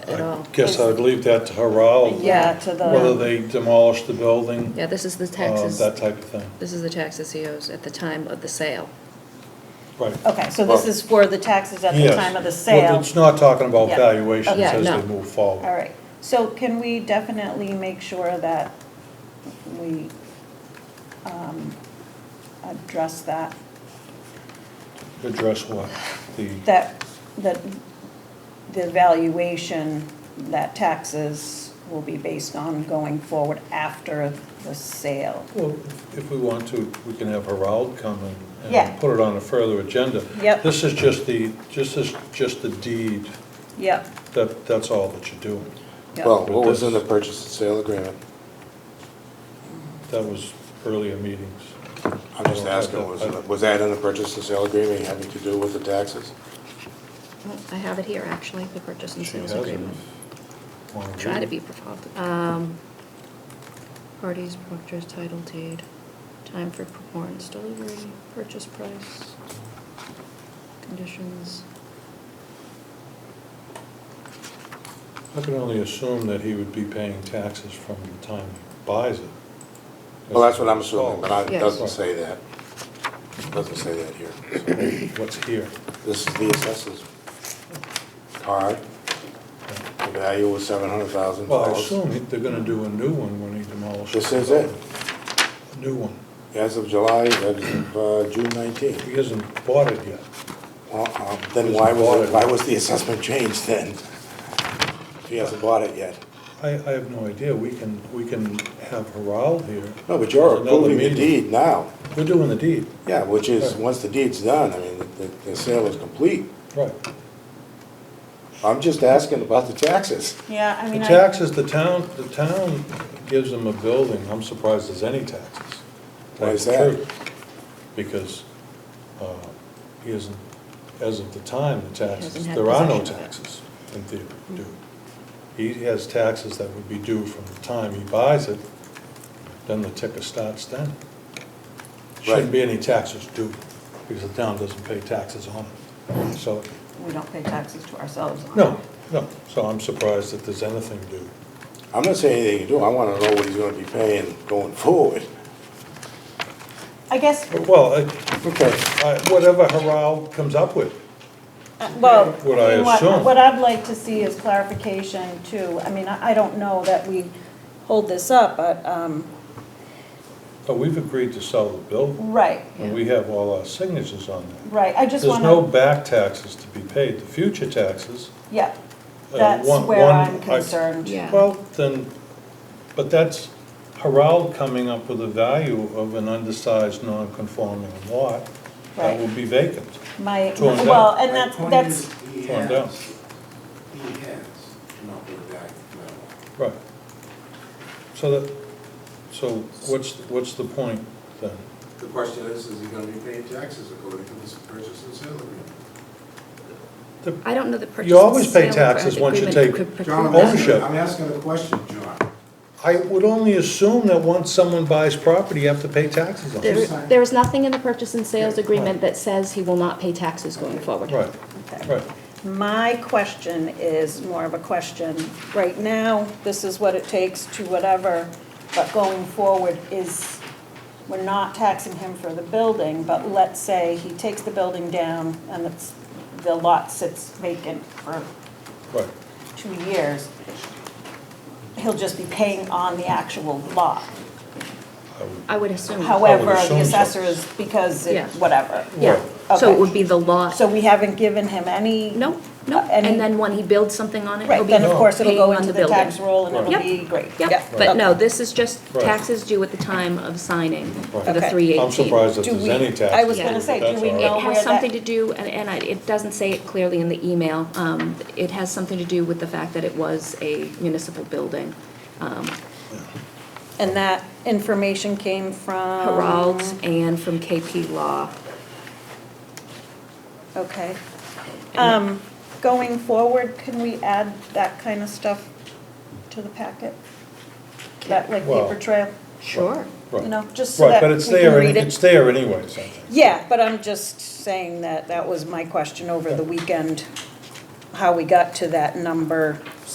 at all. Guess I'd leave that to Harald. Yeah, to the- um, Whether they demolish the building, Yeah, this is the uh, taxes, that type of thing. this is the taxes he owes at the time of the sale. Right. Okay, so this is for the taxes at the Yes. time of the Well, sale. It's not talking about Yeah. valuations Yeah, as no. they move forward. All right, so can we definitely make sure that we um, address that? Address what? The, That, that the valuation that taxes will be based on going forward after the sale? well, if we want to, we can have Harald come and, Yeah. and put it on a further agenda. Yep. This is just the, just this, just the deed, Yep, that, that's all that you're doing. yep. Well, what was in the purchase and sale agreement? That was earlier meetings. I'm just asking, was, it- was that in the purchase and sale agreement having to do with the taxes? I have it here, actually, the purchase and She sales hasn't. agreement. Wanna Try to read be it? profound. Um, parties, proctors, title deed, time for performance, delivery, purchase price, conditions. I can only assume that he would be paying taxes from the time he buys it. Well, that's what I'm assuming, but I- it Yes. doesn't say that. It Doesn't say that here. What's here? This is the assessor's card. The value was seven hundred thousand Well, I dollars. assume he- they're gonna do a new one when he demolishes. This is the it. building. A New one. As of July, as of uh, June nineteenth. He hasn't bought it yet. Then why was, it- why was the assessment changed then? If he hasn't bought it yet. I, I have no idea. We can, we can have Harald here. No, but you're There's another approving the meeting. deed now. We're doing the deed, Yeah, which is, Right. once the deed's done, I mean, the, the sale is complete. right. I'm just asking about the taxes. Yeah, I The mean, I, taxes, the town, the town gives them a building, I'm surprised there's any taxes. Why is Tell you that? the truth. Because, uh, he isn't, as of the time, the taxes, Hasn't had there are no possession of it. taxes in theory due. He has taxes that would be due from the time he buys it, then the ticker starts then. Shouldn't Right. be any taxes due, because the town doesn't pay taxes on it. So, we don't pay taxes to ourselves on it. no, no, so I'm surprised that there's anything due. I'm not saying anything to do, I wanna know what he's gonna be paying going forward. I guess, Well, I- Okay. I- uh, Whatever Harald comes up with. Uh, Well, What I you know what- assume. What I'd like to see is clarification too. I mean, I I don't know that we hold this up, but, um, But we've agreed to sell the building, right, and we have all our signatures on that. right. I just There's want no to, back taxes to be paid, the future taxes. yeah, uh, that's one- where one- I'm I- concerned. Yeah. Well, then, but that's Harald coming up with a value of an undersized, non-conforming lot that Right. will be vacant. My, Torn down. well, and My that's, point that's, is, He Torn has, down. he has come up with a value for marijuana. Right. So that, so what's, what's the point then? The question is, is he gonna be paying taxes according to this purchase and sale agreement? The- I don't know the purchase. You always and pay sale of taxes the once you agreement take could John, I'm preclude- ownership. asking- I'm asking a question, John. I would only assume that once someone buys property, you have to pay taxes on it. There, there is nothing in the purchase and sales agreement that says he will not pay taxes going forward. Right, right. my question is more of a question. Right now, this is what it takes to whatever, but going forward is, we're not taxing him for the building, but let's say he takes the building down and it's, the lot sits vacant for Right, two years. He'll just be paying on the actual lot. Oh, I would- I would assume. However, assume the so. assessor is, because Yeah. it, whatever. Yeah, so Okay. it would be the lot. So we haven't given him any. No, no, uh, any- and then when he builds something on it, it'll Right, be then of course it'll go paying on into the the tax building. roll and it'll Yep. be great. Yep, Yeah. but no, Okay. this is just Right. taxes due at the time of signing for Right. the Okay. three I'm surprised that Do there's we- any taxes. I was gonna due, say, but do that's we all right. know- It where has that- something to do, and, and I, it doesn't say it clearly in the email, um, it has something to do with the fact that it was a municipal building. Um, And that information came from? Heralds and from KP Law. Okay. Um, going forward, can we add that kind of stuff to the packet? That like Well, paper trail, Sure. you know, just so Right, that but we it's there, can any- read it. it's there anyways, I think. Yeah, but I'm just saying that that was my question over the weekend, how we got to that number